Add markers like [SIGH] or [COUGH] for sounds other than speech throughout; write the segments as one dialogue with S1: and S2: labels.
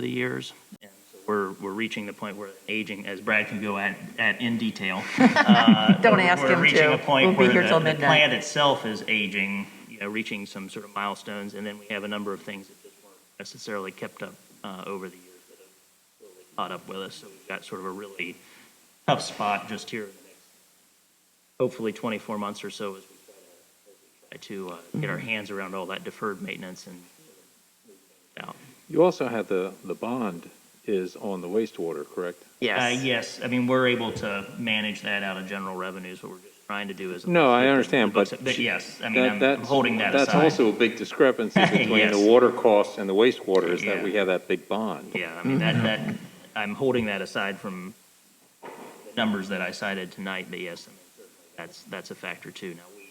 S1: the years. And so We're, we're reaching the point where aging, as Brad can go at, at in detail.
S2: [LAUGHS] Don't ask
S1: We're
S2: him
S1: reaching a
S2: to. We'll
S1: point
S2: be
S1: where
S2: here
S1: the
S2: till
S1: the plant
S2: midnight.
S1: itself is aging, you know, reaching some sort of milestones, and then we have a number of things that just weren't necessarily kept up uh, over the years that have really caught up with us. So we've got sort of a really tough spot just here in the next, hopefully 24 months or so as we try to, as we try to uh,
S2: Mm-hmm.
S1: get our hands around all that deferred maintenance and sort of move things out.
S3: You also had the, the bond is on the wastewater, correct?
S1: Uh, yes, I mean, we're able to manage that out of general revenues, what we're just trying to do is.
S3: No, I understand, but-
S1: But yes, I mean,
S3: That-
S1: I'm- I'm
S3: that's-
S1: holding that aside.
S3: That's also a
S1: [LAUGHS]
S3: big discrepancy between
S1: Yes.
S3: the water costs and the wastewater, is that
S1: Yeah.
S3: we have that big bond.
S1: Yeah, I mean, that, that, I'm holding that aside from the numbers that I cited tonight, but yes, I mean, certainly that's, that's a factor too. Now, we,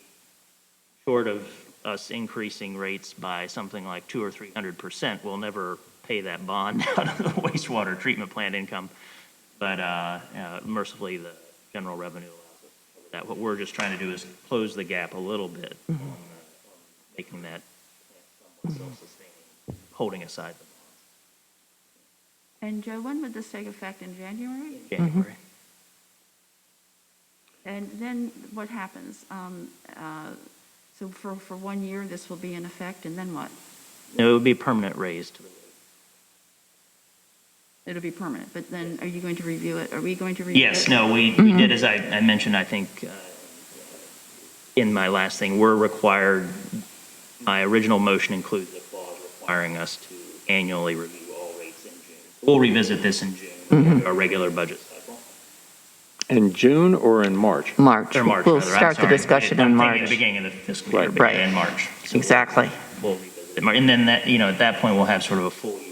S1: short of us increasing rates by something like two or three hundred percent, we'll never pay that bond [LAUGHS] out of the wastewater treatment plant income. But, uh, uh, mercifully, the general revenue allows us to cover that. What we're just trying to do is close the gap a little bit, on, uh, on making that self-sustaining, holding aside
S4: And Joe, when would this take effect in January?
S1: the January.
S4: And then what happens? Um, uh, So for, for one year, this will be in effect, and then what?
S1: No, it would be permanent raised.
S4: It'll be permanent, but then are you going to review it? Are we going to review it?
S1: Yes, no, we, we did, as I, I mentioned, I think, uh, in my last thing, we're required, my original motion includes a clause requiring us to annually review all rates in June. We'll revisit this in June, our regular budget cycle.
S3: In June or in March?
S2: March.
S1: Or March,
S2: We'll
S1: rather, I'm
S2: start the
S1: sorry.
S2: discussion
S1: I'm
S2: in
S1: thinking
S2: March.
S1: at the beginning of the fiscal year, but
S3: Right.
S1: yeah,
S2: Right.
S1: in March. So we'll-
S2: Exactly.
S1: we'll revisit it. And then that, you know, at that point, we'll have sort of a full year's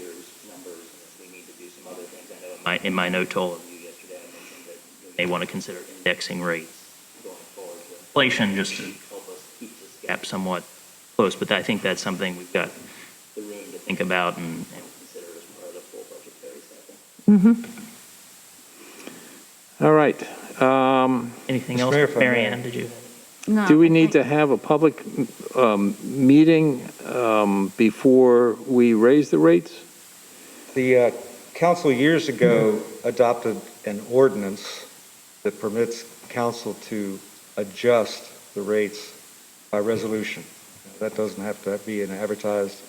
S1: numbers. and if We need to do some other things. I know in my, in my note to all of you yesterday, I mentioned that they want to consider indexing rates going forward with inflation just to help us keep this gap somewhat close. But I think that's something we've got the room to think about and, and consider as part of the full budgetary cycle.
S2: Mm-hmm.
S3: All right. Um,
S1: Anything
S5: Mr.
S1: else?
S5: Mayor, if I may.
S1: Mary Ann, did you?
S4: No,
S3: Do we
S4: I
S3: need to
S4: think-
S3: have a public um, meeting um, before we raise the rates?
S5: The uh, council years ago adopted an ordinance that permits council to adjust the rates by resolution. That doesn't have to be an advertised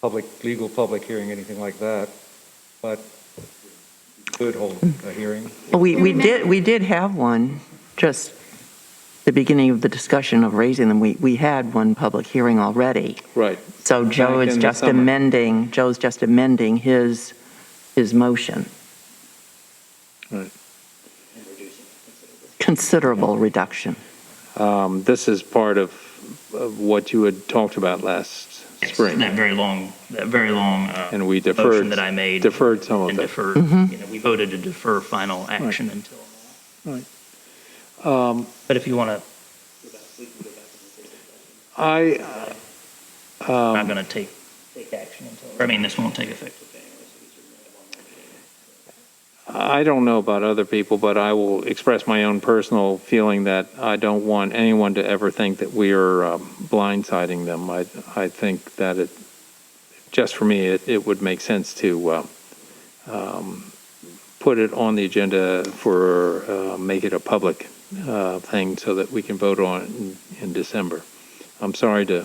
S5: public, legal public hearing, anything like that, but we could hold a hearing.
S2: We, we
S4: Remember-
S2: did, we did have one, just the beginning of the discussion of raising them. We, we had one public hearing already.
S3: Right.
S2: So Joe
S3: Back
S2: is
S3: in the
S2: just
S3: summer.
S2: amending, Joe's just amending his, his motion.
S3: Right.
S2: Considerable reduction.
S3: Um, This is part of of what you had talked about last
S1: Yes,
S3: spring,
S1: That very long, that very long, uh,
S3: and we
S1: motion
S3: deferred,
S1: that I made.
S3: deferred some of
S1: And
S3: that.
S1: defer,
S2: Mhm.
S1: you know, we voted to defer final action until. Um,
S3: Right.
S1: But if you want to,
S3: I, Um,
S1: I'm not going to take, take action until, I mean, this won't take effect until January. so we certainly have one more meeting.
S3: I don't know about other people, but I will express my own personal feeling that I don't want anyone to ever think that we are um, blindsiding them. I, I think that it, just for me, it, it would make sense to uh, um, put it on the agenda for, uh, make it a public uh, thing so that we can vote on it in, in December. I'm sorry to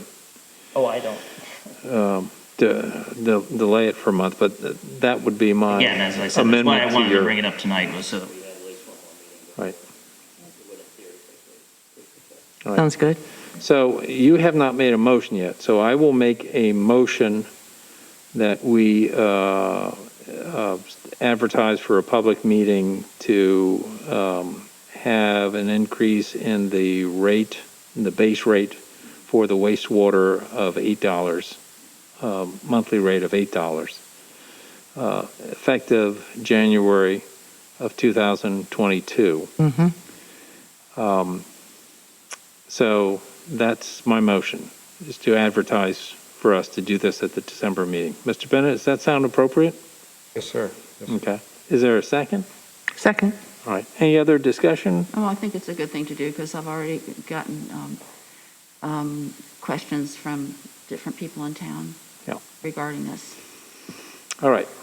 S1: Oh, I don't.
S3: de- de- delay it for a month, but th- that would be my
S1: Again, as I said, that's why
S3: Uh, amendment
S1: I
S3: to
S1: wanted to
S3: your-
S1: bring it up tonight was so that we had at least one more meeting. but
S3: Right.
S1: it would appear that
S3: Right.
S2: Sounds good?
S3: So you have not made a motion yet, so I will make a motion that we uh, uh, advertise for a public meeting to um, have an increase in the rate, in the base rate for the wastewater of $8, um, monthly rate of $8, uh, effective January of 2022.
S2: Mm-hmm.
S3: So that's my motion, is to advertise for us to do this at the December meeting. Mr. Bennett, does that sound appropriate?
S5: Yes, sir. Yes, sir.
S3: Okay. Is there a second?
S2: Second?
S3: All right. Any other discussion?
S4: Oh, I think it's a good thing to do, because I've already gotten um, um, questions from different people in town
S3: Yeah.
S4: regarding this.
S3: All right.